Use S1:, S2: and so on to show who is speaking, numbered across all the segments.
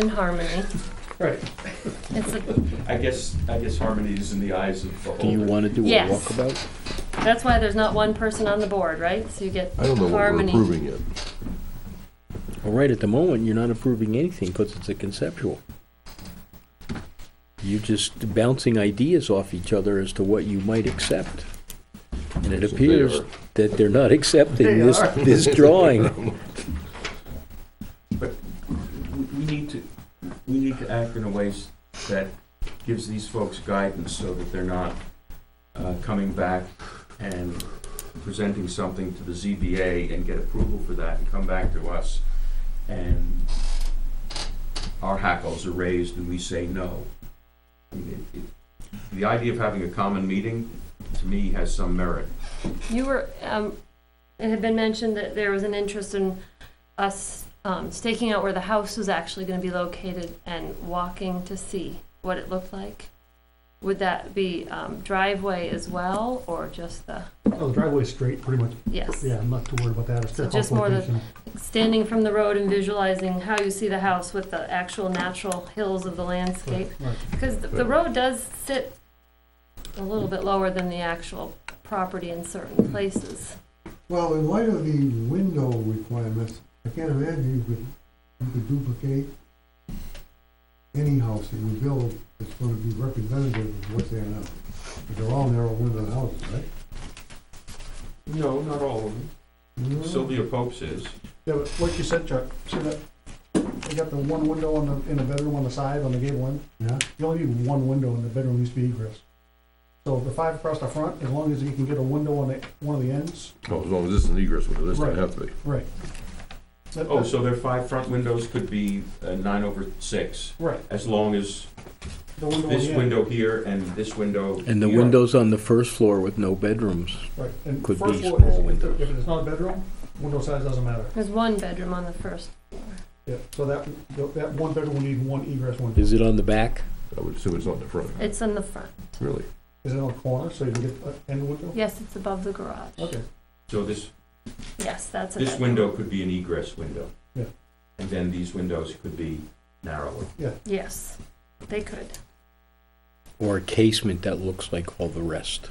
S1: in harmony.
S2: Right.
S1: It's a,
S3: I guess, I guess harmony is in the eyes of the
S4: Do you
S3: whole.
S4: want to do a
S1: Yes.
S4: walkabout?
S1: that's why there's not one person on the board, right? So you get
S5: I don't know what we're
S1: harmony.
S5: approving yet.
S4: Well, right at the moment, you're not approving anything because it's a conceptual. You're just bouncing ideas off each other as to what you might accept. And it
S5: Yes, they
S4: appears
S5: are.
S4: that they're not accepting
S2: They
S4: this,
S2: are.
S4: this drawing.
S3: But we- we need to, we need to act in a way s- that gives these folks guidance so that they're not uh, coming back and presenting something to the ZBA and get approval for that and come back to us and our hackles are raised and we say no. I mean, it- it- The idea of having a common meeting, to me, has some merit.
S1: You were, um, it had been mentioned that there was an interest in us, um, staking out where the house was actually gonna be located and walking to see what it looked like. Would that be, um, driveway as well, or just the,
S2: Oh, the driveway's straight, pretty much.
S1: yes?
S2: Yeah, I'm not too worried about that. It's
S1: So
S2: the
S1: just
S2: house
S1: more the-
S2: location.
S1: Standing from the road and visualizing how you see the house with the actual natural hills of the landscape.
S2: Right, right.
S1: Because the- the road does sit a little bit lower than the actual property in certain places.
S6: Well, in light of the window requirements, I can't imagine you could, you could duplicate any house that you build that's gonna be representative of what's there now. But They're all narrow window houses, right?
S3: No, not all of them.
S6: No?
S3: Sylvia Pope's is.
S2: Yeah, but what you said, Chuck, see that, they got the one window on the, in the bedroom on the side, on the gable end?
S6: Yeah,
S2: You only need one window in the bedroom, needs to be egress. So the five across the front, as long as you can get a window on the, one of the ends,
S5: Oh, as long as this is an egress window, this
S2: Right.
S5: doesn't have to be.
S2: right. That-
S3: Oh,
S2: that-
S3: so their five front windows could be uh, nine over six,
S2: Right.
S3: as long as
S2: The window on
S3: this
S2: the end.
S3: window here and this window.
S4: And the
S3: here.
S4: windows on the first floor with no bedrooms.
S2: Right, and
S4: could
S2: first
S4: be
S2: floor,
S4: small
S2: if-
S4: windows.
S2: If it's not a bedroom, window size doesn't matter.
S1: There's one bedroom on the first.
S2: Yeah, so that, that one bedroom will need one egress window.
S4: Is it on the back?
S5: I would assume it's not in the front,
S1: It's in the front.
S5: really.
S2: Is it on a corner, so you can get an end window?
S1: Yes, it's above the garage.
S2: Okay,
S3: So this,
S1: Yes, that's a
S3: this
S1: bedroom.
S3: window could be an egress window.
S2: Yeah.
S3: And then these windows could be narrower.
S1: Yes, they could.
S4: Or a casement that looks like all the rest?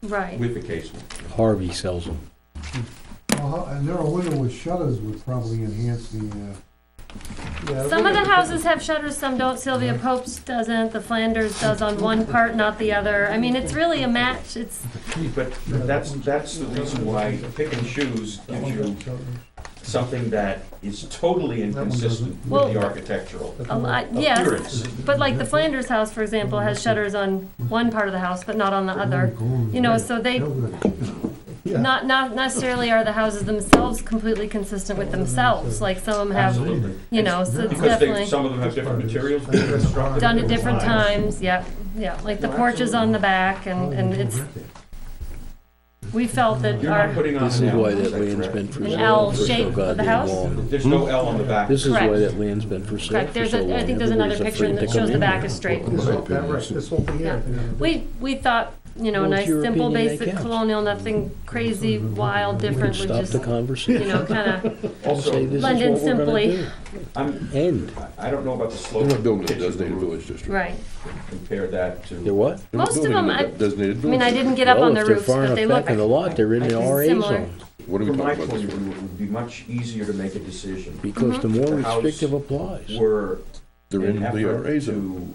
S1: Right.
S3: With the casement.
S4: Harvey sells them.
S6: well, a narrow window with shutters would probably enhance the, uh,
S2: yeah.
S1: Some of the houses have shutters, some don't. Sylvia
S3: Mm-hmm.
S1: Pope's doesn't. The Flanders does on one part, not the other. I mean, it's really a match. It's,
S3: But that's, that's the reason why pick and choose gives
S2: That one
S3: you
S2: doesn't-
S3: something that is totally
S2: one
S3: inconsistent
S2: doesn't.
S3: with
S1: Well-
S3: the architectural
S2: that
S1: A
S2: one-
S1: lot-
S2: that
S1: yes.
S3: appearance.
S1: but like the Flanders house, for example,
S3: Mm-hmm.
S1: has shutters on one part of the house, but not on the other. You know, so they,
S2: Yeah.
S1: not, not necessarily are the houses themselves completely consistent with themselves. Like some of them have,
S3: Absolutely.
S1: you know, so it's
S3: Because they,
S1: definitely
S3: some of them have different materials,
S2: I think
S3: different
S2: that's fine.
S3: structures.
S1: done at different times. Yeah, yeah. Like the porch is on the back
S4: oh,
S1: and, and it's, we felt that
S3: You're not
S1: our,
S3: putting on an
S4: This is why
S3: L,
S4: that
S3: is
S4: land's
S3: correct?
S4: been for
S1: An
S4: sale.
S1: L
S4: for so
S1: shape of the
S4: goddamn
S1: house?
S4: long.
S3: There's no L on the back.
S4: This is why
S1: Correct.
S4: that land's been for sale
S1: correct,
S4: for
S1: there's
S4: so
S1: a,
S4: long.
S1: I think there's another
S4: Everybody's
S1: picture
S4: afraid
S1: that
S4: to
S1: shows
S4: come
S1: the
S4: in.
S1: back is straight.
S2: This whole, that, right, this whole thing here.
S1: We, we thought, you know, a
S4: Well, it's
S1: nice,
S4: your
S1: simple,
S4: opinion that
S1: basic
S4: counts.
S1: colonial, nothing crazy, wild,
S4: We could
S1: different, would
S4: stop
S1: just,
S4: the
S1: you
S4: conversation.
S1: know, kinda,
S4: Say
S3: Also,
S4: this is
S1: blend in
S4: what we're gonna
S1: simply.
S4: do.
S3: I'm,
S4: End.
S3: I don't know about the slope.
S5: They're not building a
S3: pitch of the
S5: designated
S3: roof.
S5: village district.
S1: right.
S3: Compare that to.
S4: They're what?
S5: They're not
S1: Most of
S5: building a
S1: them, I-
S5: Designated
S1: I mean, I
S5: village.
S1: didn't get up
S4: Well,
S1: on their
S4: if they're
S1: roofs,
S4: far
S1: but
S4: enough
S1: they look,
S4: Back in the lot, they're in the RA
S1: similar.
S4: zone.
S5: What are we
S3: From my
S5: talking about
S3: point
S5: this
S3: of
S5: for?
S3: view, it would be much easier to make a decision
S4: Because the more
S3: The house
S4: restrictive applies.
S3: were
S5: They're in
S3: an
S5: the
S3: effort
S5: RA zone.
S3: to,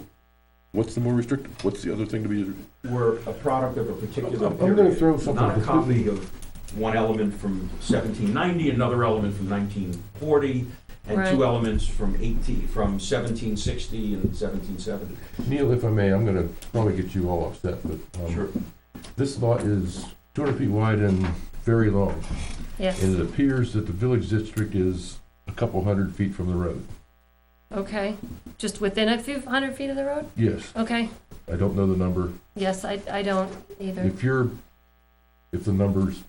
S5: What's the more restrictive? What's the other thing to be?
S3: were a product of a particular
S6: I'm- I'm gonna
S3: period.
S6: throw something
S3: Not a
S6: completely-
S3: copy of one element from seventeen ninety, another element from nineteen forty, and
S1: Right.
S3: two elements from eighteen, from seventeen sixty and seventeen seventy.
S7: Neil, if I may, I'm gonna probably get you all upset, but, um, this lot is two hundred feet wide and very long,
S1: yes,
S7: and it appears that the village district is a couple hundred feet from the road.
S1: okay. Just within a few hundred feet of the road?
S7: Yes,
S1: Okay,
S7: I don't know the number.
S1: yes, I, I don't either.
S7: If you're, if the number's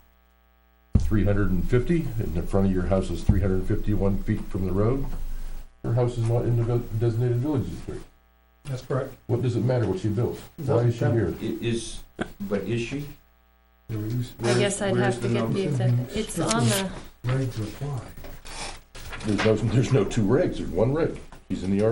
S7: three hundred and fifty, and the front of your house is three hundred and fifty-one feet from the road, your house is not in the vil- designated village district.
S2: That's correct.
S7: What does it matter what she built? Why is she here?
S3: I- Is, but is she?
S1: I guess I'd
S3: Where's
S1: have
S3: the
S1: to get
S3: number?
S1: the exact, it's on the.
S6: Right to apply.
S5: There's no, there's no two regs. There's one reg. He's in the